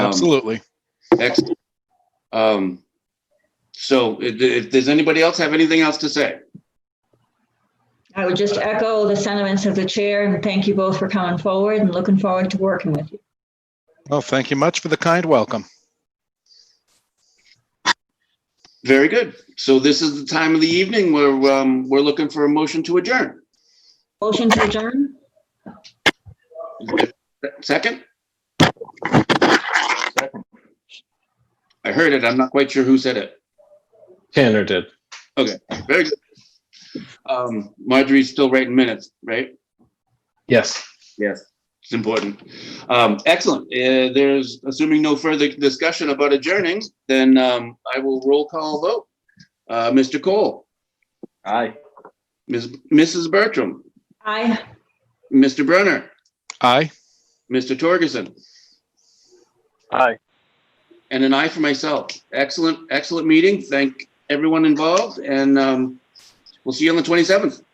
Absolutely. Excellent. Um, so if, if does anybody else have anything else to say? I would just echo the sentiments of the chair and thank you both for coming forward and looking forward to working with you. Well, thank you much for the kind welcome. Very good. So this is the time of the evening where, um, we're looking for a motion to adjourn. Motion to adjourn? Second? I heard it. I'm not quite sure who said it. Tanner did. Very good. Um, Marjorie's still writing minutes, right? Yes. Yes. It's important. Um, excellent. Uh, there's, assuming no further discussion about adjourning, then, um, I will roll call vote. Uh, Mr. Cole, Aye. Ms., Mrs. Bertram, Aye. Mr. Brunner, Aye. Mr. Torgerson, Aye. and an aye for myself. Excellent, excellent meeting. Thank everyone involved and, um, we'll see you on the twenty-seventh.